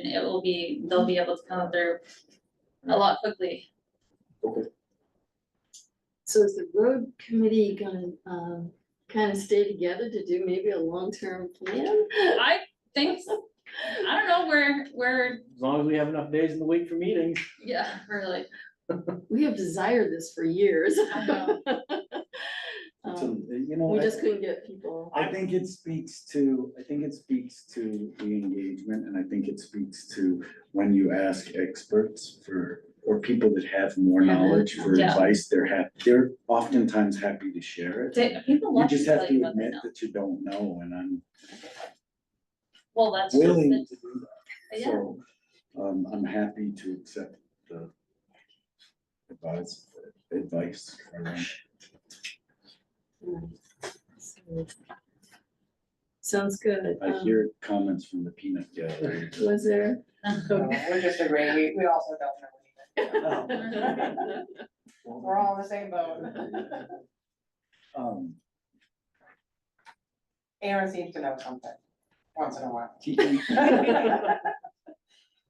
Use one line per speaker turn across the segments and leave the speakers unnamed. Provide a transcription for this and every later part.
it will be, they'll be able to come through a lot quickly.
So is the road committee gonna, um, kind of stay together to do maybe a long-term plan?
I think, so. I don't know, we're, we're,
As long as we have enough days in the week for meetings.
yeah, really,
We have desired this for years.
I know. Uh,
It's
uh,
a-
Um,
You know,
We just
I,
couldn't get people.
I
I think it speaks to, I think it speaks to the engagement and I think it speaks to when you ask experts for, or people that have more knowledge for
Mm-hmm. Yeah.
advice, they're hap, they're oftentimes happy to share it.
They- people
You
love to
just have
tell you
to
what they
admit
know.
that you don't know and I'm
Well, that's just,
willing
it.
to do that.
yeah,
So, um, I'm happy to accept the advice, advice. around-
Sounds good.
I
Um,
hear comments from the peanut gallery.
Was there?
No, We're just agreeing, we, we also don't know anything.
Oh,
We're all in the same boat.
Um,
Aaron seems to know something, once in a while.
he- he-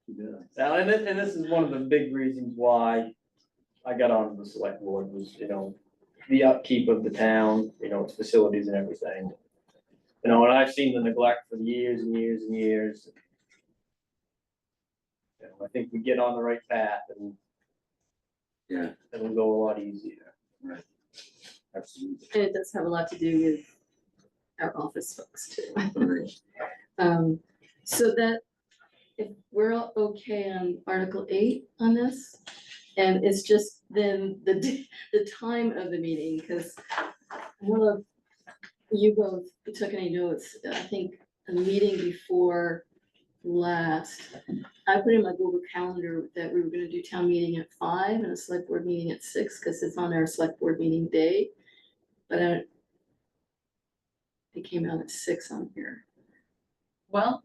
he does.
Now, and this, and this is one of the big reasons why I got on the select board was, you know, the upkeep of the town, you know, its facilities and everything. You know, and I've seen the neglect for years and years and years. You know, I think we get on the right path and
Yeah.
it'll go a lot easier.
Absolutely.
And it does have a lot to do with our office folks too. Um, so that, if we're all okay on Article eight on this, and it's just then the, d- the time of the meeting, because I don't know if you both took any notes, I think a meeting before last, I put in my Google Calendar that we were gonna do town meeting at five and a select board meeting at six, because it's on our select board meeting day. But I don't. It came out at six on here.
well,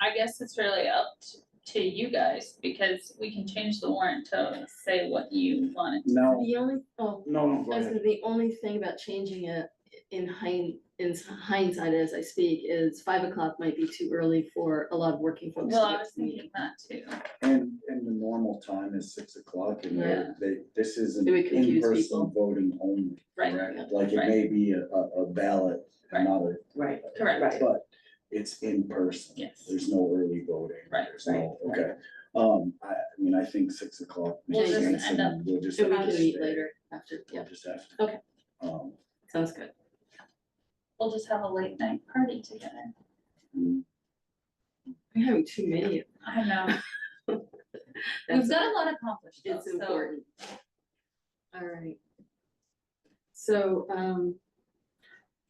I guess it's really up t- to you guys, because we can change the warrant to say what you want.
No,
The only, oh,
no, no, go
I was
ahead.
gonna- the only thing about changing it in hind, in hindsight as I speak is five o'clock might be too early for a lot of working folks. to
Well, I
get
was
to the meeting.
thinking that too.
And, and the normal time is six o'clock and
Yeah.
they're- they, this isn't
It would confuse people.
in-person voting only,
Right,
correct? Like it
right.
may be a, a a ballot,
Right.
another,
Right.
correct,
Right.
but it's in person.
Yes.
There's no early voting.
Right,
There's no, okay. Um, I, I mean, I think six o'clock
We'll
makes
just
sense
end
and we'll just.
So we
have
can
to
meet
stay.
later after,
We'll
yeah,
just have to.
Okay.
Um,
sounds good.
we'll just have a late night party together.
mm,
We're having too many.
I know,
That's-
we've got a lot accomplished though,
It's
so.
important. All right. So, um,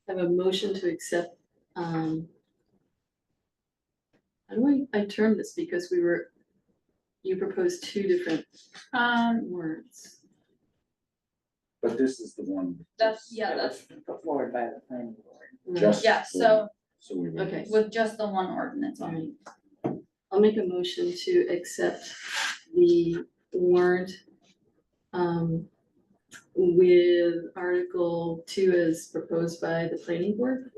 I have a motion to accept, um, how do I, I term this because we were, you proposed two different
Um,
words.
but this is the one.
that's, yeah, that's,
Put forward by the planning board.
Just.
yeah,
for-
so
So we. would-
Okay.
with just the one ordinance
All
on it.
right. I'll make a motion to accept the warrant um, with Article two as proposed by the planning board.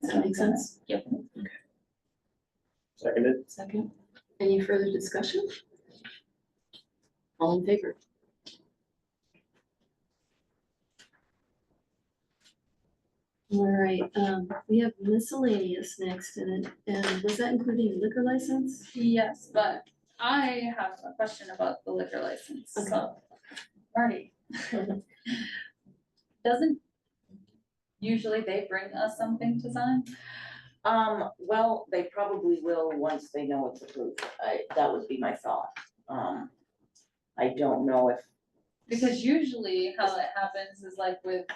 Does that make sense?
Seconded?
Second, any further discussion? All in favor? All right, um, we have miscellaneous next in it, and was that including liquor license?
Yes, but I have a question about the liquor license, so, Marty. Doesn't usually they bring us something to sign?
Um, well, they probably will once they know it's approved. I, that would be my thought. Um, I don't know if.
Because usually how it happens is like with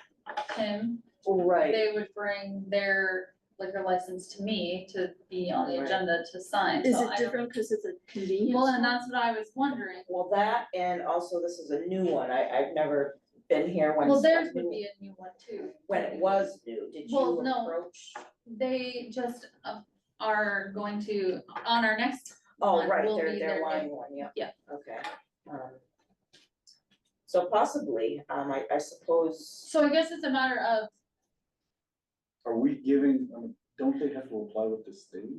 Tim,
Right.
they would bring their liquor license to me to be on the
Right.
agenda to sign,
Is
so
it
Oh, I don't.
different because it's a convenience?
Well, and that's what I was wondering,
Well, that and also this is a new one. I, I've never been here when.
well, theirs would be a new one too.
When it was new, did you
Well, no.
approach?
They just uh, are going to, on our next
Oh,
one
right,
will
they're,
be
they're
their
wanting
new-
one, yeah.
yeah.
Okay. Um, So possibly, um, I, I suppose.
So I guess it's a matter of,
Are we giving, um, don't they have to apply with the state?